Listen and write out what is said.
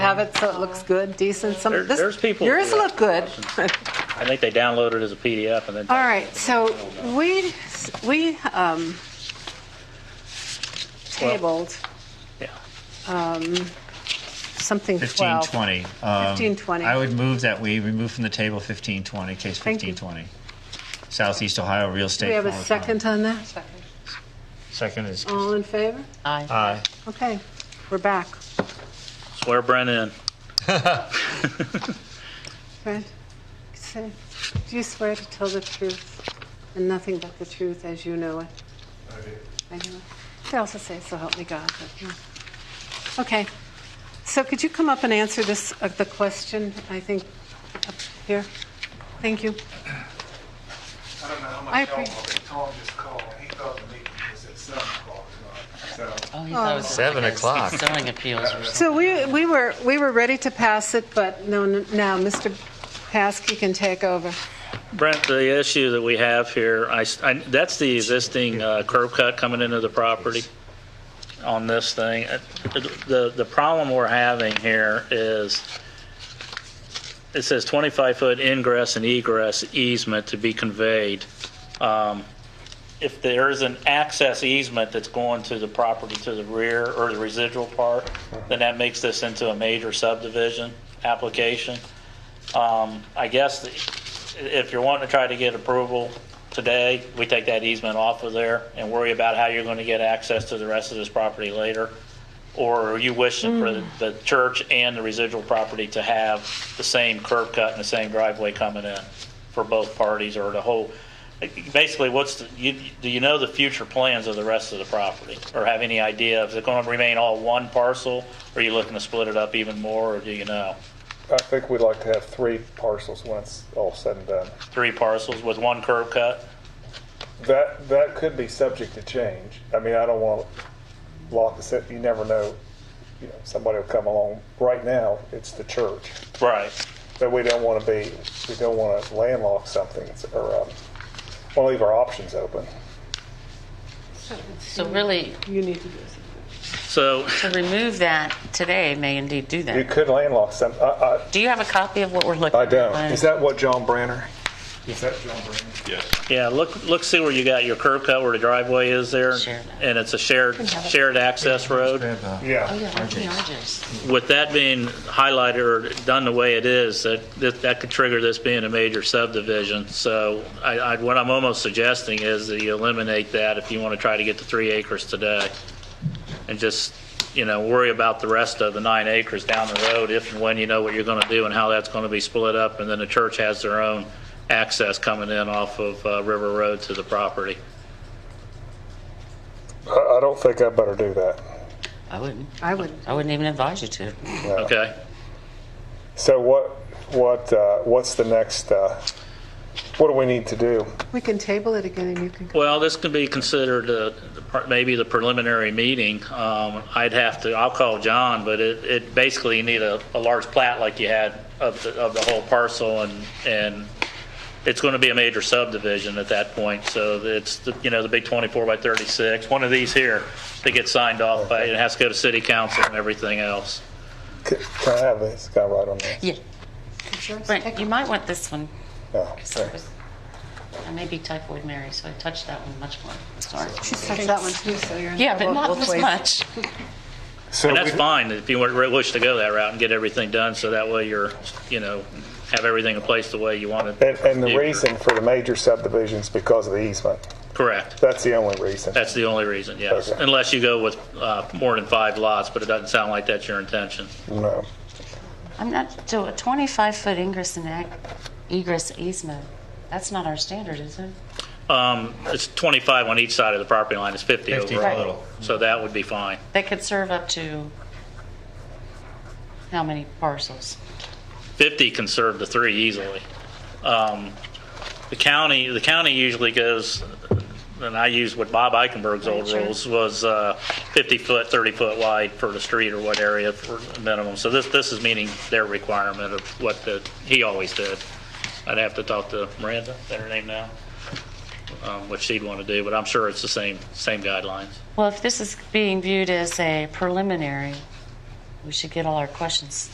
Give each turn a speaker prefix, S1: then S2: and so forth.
S1: have it so it looks good, decent. Some,
S2: There-
S1: this-
S2: there's people who
S1: Yours
S2: do
S1: look good.
S2: I think they download it as a PDF and then.
S1: All right, so we, we um, tabled
S2: Yeah.
S1: something 12.
S3: 1520. um,
S1: 1520.
S3: I would move that we remove from the table 1520, case
S1: Thank you.
S3: 1520. Southeast Ohio Real Estate.
S1: Do we have a
S3: Development.
S1: second on that?
S3: Second is,
S1: All in favor?
S3: aye.
S1: Okay, we're back.
S2: Swear Brennan in.
S1: Right. So, Do you swear to tell the truth and nothing but the truth as you know it? I do. They also say, so help me God. but, yeah. Okay. So could you come up and answer this, uh, the question, I think, up here? Thank you.
S4: I don't know how
S1: I
S4: much y'all,
S1: appreciate-
S4: but Tom just called, he thought the meeting was at seven o'clock tonight, so.
S5: Oh, he thought it was
S6: Seven
S5: like a
S6: o'clock.
S5: Zoning appeals or something.
S1: So we, we were, we were ready to pass it, but no, now Mr. Paskey can take over.
S2: Brent, the issue that we have here, I s- I- that's the existing uh, curb cut coming into the property on this thing. Uh, The, the problem we're having here is, it says 25-foot ingress and egress easement to be conveyed. Um, If there is an access easement that's going to the property to the rear or the residual part, then that makes this into a major subdivision application. Um, I guess the- if you're wanting to try to get approval today, we take that easement off of there and worry about how you're going to get access to the rest of this property later. Or are you wishing for the- the church and the residual property to have the same curb cut and the same driveway coming in for both parties or the whole? Basically, what's, the- you- do you know the future plans of the rest of the property? Or have any idea, is it going to remain all one parcel? Or are you looking to split it up even more, or do you know?
S4: I think we'd like to have three parcels when it's all said and done.
S2: three parcels with one curb cut.
S4: That, that could be subject to change. I mean, I don't want to lock this, in. you never know, you know, somebody will come along. Right now, it's the church,
S2: Right.
S4: but we don't want to be, we don't want to landlock something, or, um, want to leave our options open.
S5: So really,
S1: You need to do this.
S2: So
S5: to remove that today may indeed do
S4: You
S5: that.
S4: could landlock some, I, I,
S5: Do you have a copy of what we're looking
S4: I
S5: at?
S4: don't. Is that what John Branner? Is that John Branner?
S2: yeah, look look see where you got your curb cut where the driveway is there,
S5: Shared.
S2: and it's a shared shared access road.
S3: Grab, uh,
S4: Yeah.
S5: Oh, yeah, look at ours.
S2: With that being highlighted or done the way it is, that that, that could trigger this being a major subdivision. So I, I, what I'm almost suggesting is that you eliminate that if you want to try to get to three acres today, and just you know worry about the rest of the nine acres down the road if and when you know what you're going to do and how that's going to be split up. And then the church has their own access coming in off of uh, River Road to the property.
S4: I, I don't think I better do that.
S5: I wouldn't,
S1: I would,
S5: I wouldn't even advise you to.
S2: Okay.
S4: So what, what, uh, what's the next, uh, what do we need to do?
S1: we can table it again and you can,
S2: Well, this can be considered uh, the par- maybe the preliminary meeting. Um, I'd have to, I'll call John, but it, it basically you need a, a large plat like you had of the, of the whole parcel and, and it's going to be a major subdivision at that point. So it's, the- you know, the big 24 by 36, one of these here that gets signed off by, it has to go to city council and everything else.
S4: C- Can I have this guy right on there?
S5: Yeah, Brent, you might want this one.
S4: No,
S5: 'cause it
S4: sorry.
S5: was- I may be typhoid Mary, so I touched that one much more. Sorry.
S1: touch that one too, so you're in
S5: Yeah, but
S1: trouble
S5: not
S1: both
S5: this
S1: ways.
S5: much.
S4: So
S2: And that's
S4: we-
S2: fine if you were- wish to go that route and get everything done, so that way you're, you know, have everything in place the way you want it.
S4: And, and the
S2: Future.
S4: reason for the major subdivisions because of the easement.
S2: Correct.
S4: That's the only reason.
S2: That's the only reason, yes.
S4: Okay.
S2: Unless you go with uh, more than five lots, but it doesn't sound like that's your intention.
S4: No.
S5: I'm not, so a 25-foot ingress and ec- egress easement, that's not our standard, is it?
S2: Um, It's 25 on each side of the property line, it's 50
S3: 50
S2: overall.
S3: total.
S2: So that would be fine.
S5: They could serve up to how many parcels?
S2: 50 can serve the three easily. Um, The county, the county usually goes, and I use what Bob Eichenberg's old
S5: Right, sure.
S2: rules was uh, 50-foot, 30-foot wide for the street or what area for minimum. So this, this is meeting their requirement of what the, he always did. I'd have to talk to Miranda, is that her name now? Um, What she'd want to do, but I'm sure it's the same, same guidelines.
S5: Well, if this is being viewed as a preliminary, we should get all our questions